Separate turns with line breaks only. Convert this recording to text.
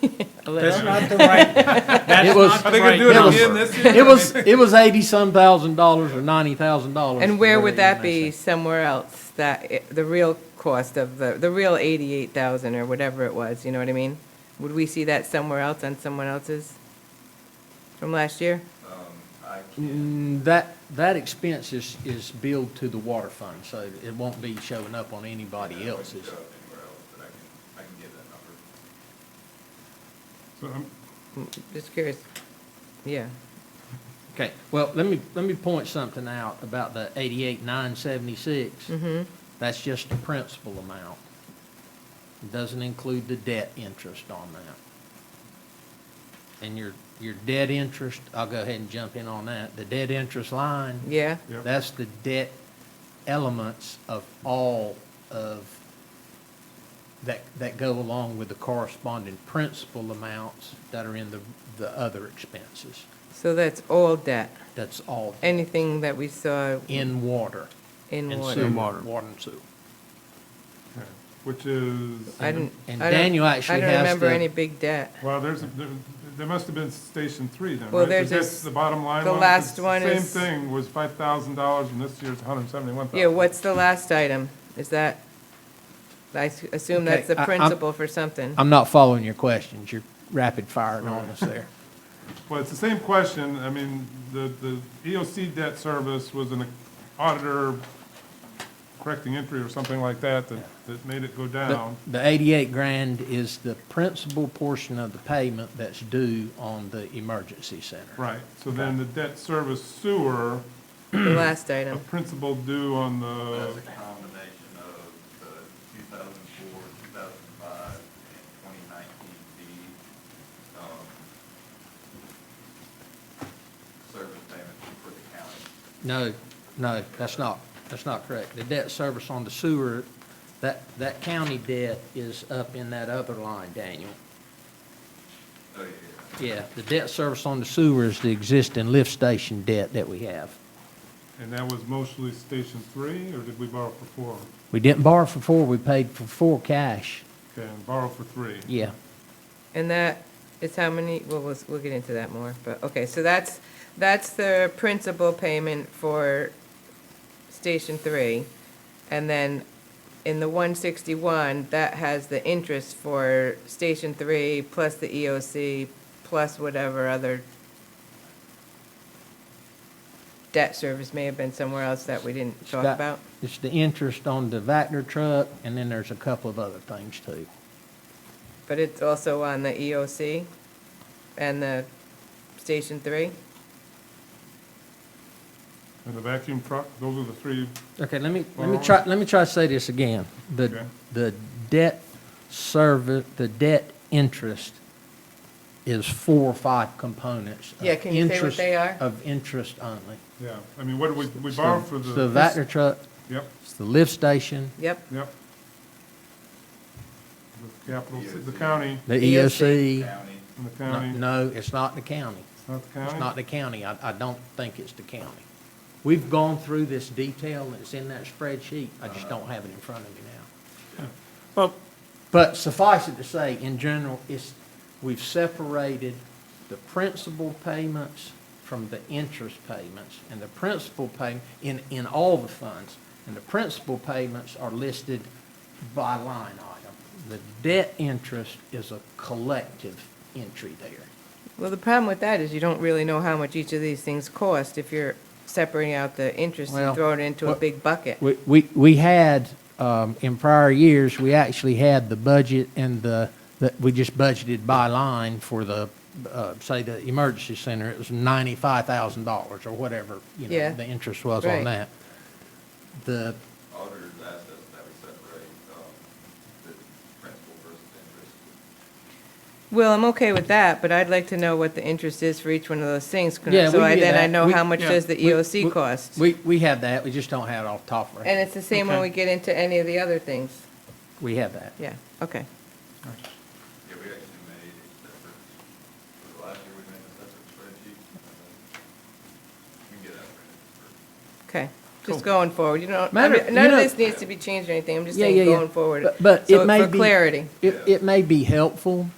That's not the right, that's
It was-
not
Are
the
they gonna
right
do it
number.
again this year?
It was, it was eighty-some thousand dollars or ninety thousand dollars.
And where would that be somewhere else, that, i- the real cost of the, the real eighty-eight thousand or whatever it was, you know what I mean? Would we see that somewhere else on someone else's from last year?
I can't.
Mm, That, that expense is, is billed to the water fund, so it won't be showing up on anybody else's.
Show up anywhere else, but I can, I can give that number.
So I'm-
Mm, Just curious. Yeah.
Okay, well, let me, let me point something out about the eighty-eight, nine seventy-six.
Mm-hmm.
That's just the principal amount. It doesn't include the debt interest on that. And your, your debt interest, I'll go ahead and jump in on that. The debt interest line.
Yeah?
Yep.
That's the debt elements of all of, that, that go along with the corresponding principal amounts that are in the, the other expenses.
So that's all debt,
That's all
anything that we saw
in water.
in
and
water.
sewer,
water.
Water and sewer.
okay, Which is,
I didn't.
And
I don't-
Daniel
I
actually has
don't remember
the-
any big debt.
well, there's, a- there there must have been Station Three then, right?
Well, there's
Because
this-
that's The bottom line
the
one?
last
'Cause the
one is-
Same thing, was five thousand dollars and this year's hundred and seventy-one thousand.
Yeah, what's the last item? Is that, I s- assume
Okay,
that's the
I- I'm-
principal for something.
I'm not following your questions. You're rapid firing on us there.
Well, it's the same question. I mean, the, the EOC debt service was an auditor correcting entry or something like that, that, that made it go
The
down.
the eighty-eight grand is the principal portion of the payment that's due on the emergency center.
Right, so then the debt service sewer,
The last
a
item.
principal due on the,
That's a combination of the two thousand four, two thousand five, and twenty nineteen deed, um, service payments for the county.
No, no, that's not, that's not correct. The debt service on the sewer, that, that county debt is up in that other line, Daniel.
Oh, yeah.
Yeah, the debt service on the sewer is the existing lift station debt that we have.
and that was mostly Station Three, or did we borrow for four?
We didn't borrow for four, we paid for four cash.
Okay, and borrow for three.
Yeah.
And that is how many, well, we'll, we'll get into that more, but, okay, so that's, that's the principal payment for Station Three. And then in the one sixty-one, that has the interest for Station Three plus the EOC plus whatever other debt service may have been somewhere else that we didn't talk
That-
about.
It's the interest on the Vactor truck, and then there's a couple of other things too.
But it's also on the EOC and the Station Three?
And the vacuum truck, those are the three,
Okay, let me, let me
Well-
try, let me try to say this again. The,
Okay.
the debt service, the debt interest is four or five components. of
Yeah, can you say what
interest-
they are?
Of interest only.
yeah. I mean, what did we, we
It's
borrowed for
it's
the.
The Vactor truck,
Yep,
it's the lift station,
Yep.
yep. The capital, the county,
the
EOC.
EOC.
County,
and the
No,
county,
No, it's not the county.
it's not the
It's
county?
not the county. I, I don't think it's the county. We've gone through this detail that's in that spreadsheet. I just don't have it in front of me now.
Well,
But suffice it to say, in general, it's, we've separated the principal payments from the interest payments. And the principal pay, in, in all the funds, and the principal payments are listed by line item. The debt interest is a collective entry there.
Well, the problem with that is you don't really know how much each of these things cost if you're separating out the interest
Well,
and throwing it into a
what-
big bucket.
We, we, we had, um, in prior years, we actually had the budget and the, that we just budgeted by line for the, uh, say, the emergency center, it was ninety-five thousand dollars or whatever, you
Yeah.
know, the interest was
Right.
on that. The,
auditor's assets that we separate, um, the principal versus interest.
Well, I'm okay with that, but I'd like to know what the interest is for each one of those things. can-
Yeah,
So
we
I-
get
then I
that.
know
We-
how much
yeah.
does the
We-
EOC
we-
cost?
we, we have that, we just don't have it off the top of our
And
head.
it's the same when
Okay.
we get into any of the other things.
We have that.
Yeah, okay.
Yeah, we actually made a separate, for the last year, we made a separate spreadsheet. and then We can get that printed for.
Okay, just going forward, you know, I
Matter-
mean, none
you
of
know-
this needs to be changed or anything, I'm just
Yeah,
saying
yeah, yeah.
going forward.
But- but it
So
may
For
be-
clarity.
It, it may be helpful